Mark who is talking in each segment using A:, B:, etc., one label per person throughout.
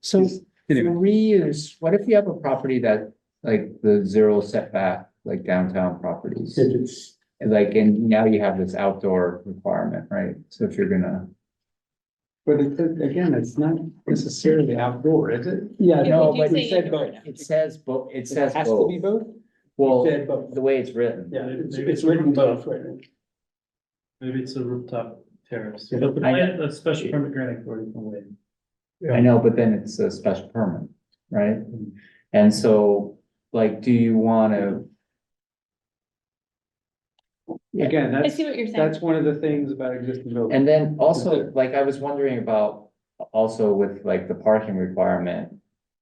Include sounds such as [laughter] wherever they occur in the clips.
A: So
B: Anyway,
A: reuse, what if you have a property that, like, the zero setback, like downtown properties?
C: If it's,
A: And Like, and now you have this outdoor requirement, right? So if you're gonna.
C: but it, again, it's not necessarily outdoor, is it?
D: Yeah,
A: No,
D: do
A: but
D: say
A: it said
D: indoor
A: both.
D: now.
A: It says both, it says
C: Has to
A: both.
C: be both?
A: Well,
C: It said both.
A: the way it's written.
C: Yeah, it's, it's written both, right?
E: Maybe it's a rooftop terrace.
C: Yeah.
E: But the
A: I-
E: plan- the special permit granting board can wait.
A: I know, but then it's a special permit, right? And so, like, do you wanna,
C: Again,
D: I
C: that's,
D: see what you're saying.
C: that's one of the things about existing buildings.
A: and then also, like, I was wondering about also with like the parking requirement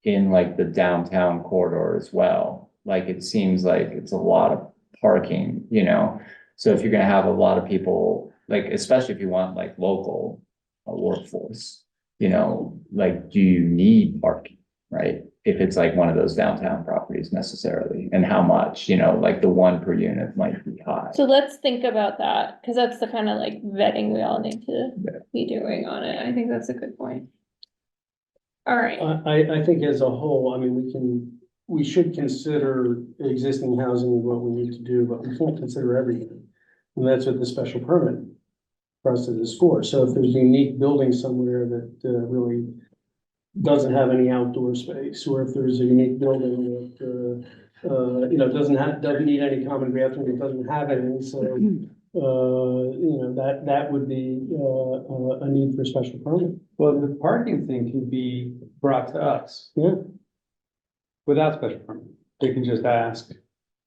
A: in like the downtown corridor as well. Like, it seems like it's a lot of parking, you know? So if you're gonna have a lot of people, like, especially if you want like local uh, workforce, you know, like, do you need parking, right? If it's like one of those downtown properties necessarily, and how much, you know, like the one per unit might be high.
D: So let's think about that, because that's the kind of like vetting we all need to be doing on it. I think that's a good point. All right,
C: I, I, I think as a whole, I mean, we can, we should consider existing housing and what we need to do, but we can't consider everything. And that's what the special permit process is for. So if there's a unique building somewhere that uh, really doesn't have any outdoor space, or if there's a unique building that, uh, uh, you know, doesn't have, doesn't need any common bathroom, it doesn't have any, so, uh, you know, that, that would be, uh, uh, a need for special permit.
F: Well, the parking thing can be brought to us
C: Yeah.
F: without special permit. They can just ask,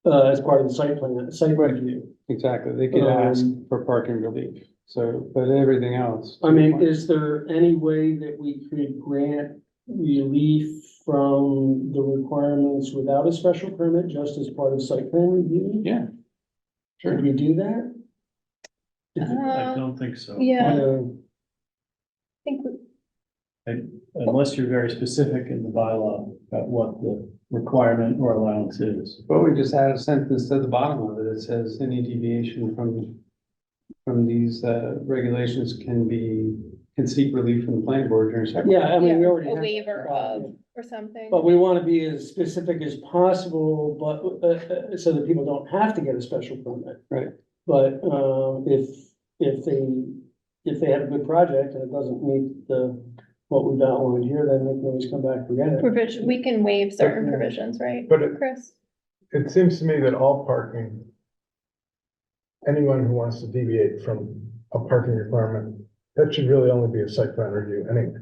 C: uh, as part of the site plan, site review.
F: exactly, they can ask
C: Um,
F: for parking relief. So, but everything else.
C: I mean, is there any way that we could grant relief from the requirements without a special permit, just as part of site plan review?
F: Yeah.
C: Could we do that?
E: I
D: Uh,
E: don't think so.
D: yeah, I
C: Um,
D: think, we-
E: Unless you're very specific in the bylaw about what the requirement or allowance is.
F: But we just add a sentence to the bottom of it that says any deviation from, from these, uh, regulations can be, can seek relief from the planning board during site.
C: Yeah, I mean, we already.
D: a
C: have-
D: waiver of or something.
C: But we want to be as specific as possible, but, uh, uh, so that people don't have to get a special permit.
F: Right.
C: But, um, if, if they, if they have a good project and it doesn't meet the, what we've outlined here, then they can always come back and get it.
D: Provision, we can waive certain provisions, right,
G: But it,
D: Chris?
G: it seems to me that all parking, anyone who wants to deviate from a parking requirement, that should really only be a site plan review anyway.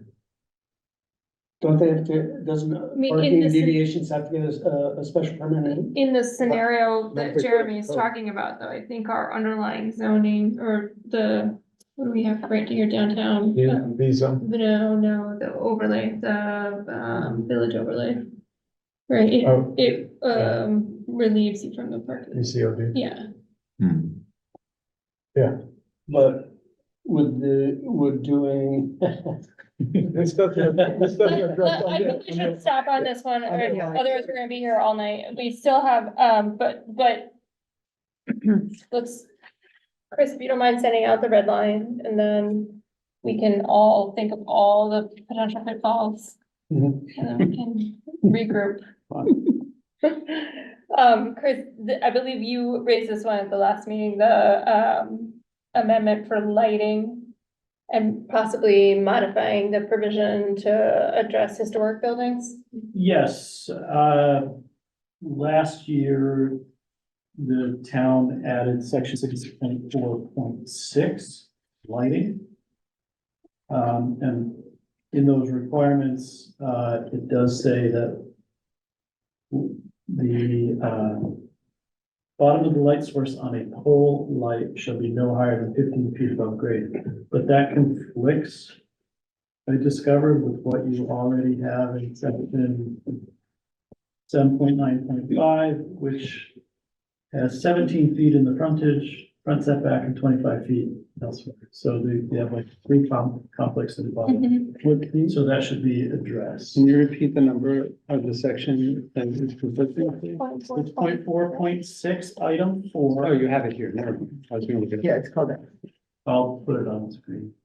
C: Don't they have to, doesn't
D: mean, in
C: parking
D: this-
C: deviations have to get a, a- a special permit? in?
D: In the scenario that
G: for
D: Jeremy is
G: code.
D: talking about, though, I think our underlying zoning or the, what do we have right here downtown? Uh,
G: Visa,
D: No, no, the overlay, the, um, village overlay. Right, it,
G: oh,
D: it, um, relieves you from the parking,
G: VCOD.
D: [laughs] yeah.
A: Hmm.
C: But would the, would doing, [laughs]
G: It's nothing, it's nothing
D: Let-
G: addressed
D: let-
G: on
D: I think we
G: this.
D: should stop on this one, or
G: Okay.
D: otherwise we're gonna be here all night, we still have, um, but, but. [clears throat] Let's, Chris, if you don't mind sending out the red line, and then we can all think of all the potential pitfalls. And
C: Mhm.
D: then we can regroup. Um, Chris, th- I believe you raised this one at the last meeting, the, um, amendment for lighting. And possibly modifying the provision to address historic buildings.
E: Yes, uh, last year, the town added section sixty point four point six, lighting. Um, and in those requirements, uh, it does say that the, um, bottom of the light source on a pole light shall be no higher than fifteen feet above grade, but that conflicts I discovered with what you already have in section seven point nine point five, which has seventeen feet in the frontage, front setback and twenty-five feet elsewhere. So they, they have like three com- conflicts in the bottom, so that should be addressed.
F: Can you repeat the number of the section that is conflicting? please?
D: Point four,
E: It's
D: point-
E: point four, point six, item
F: Oh,
E: four,
F: you have it here, never mind. I was gonna look at it.
A: Yeah, it's called that.
E: I'll put it on the screen.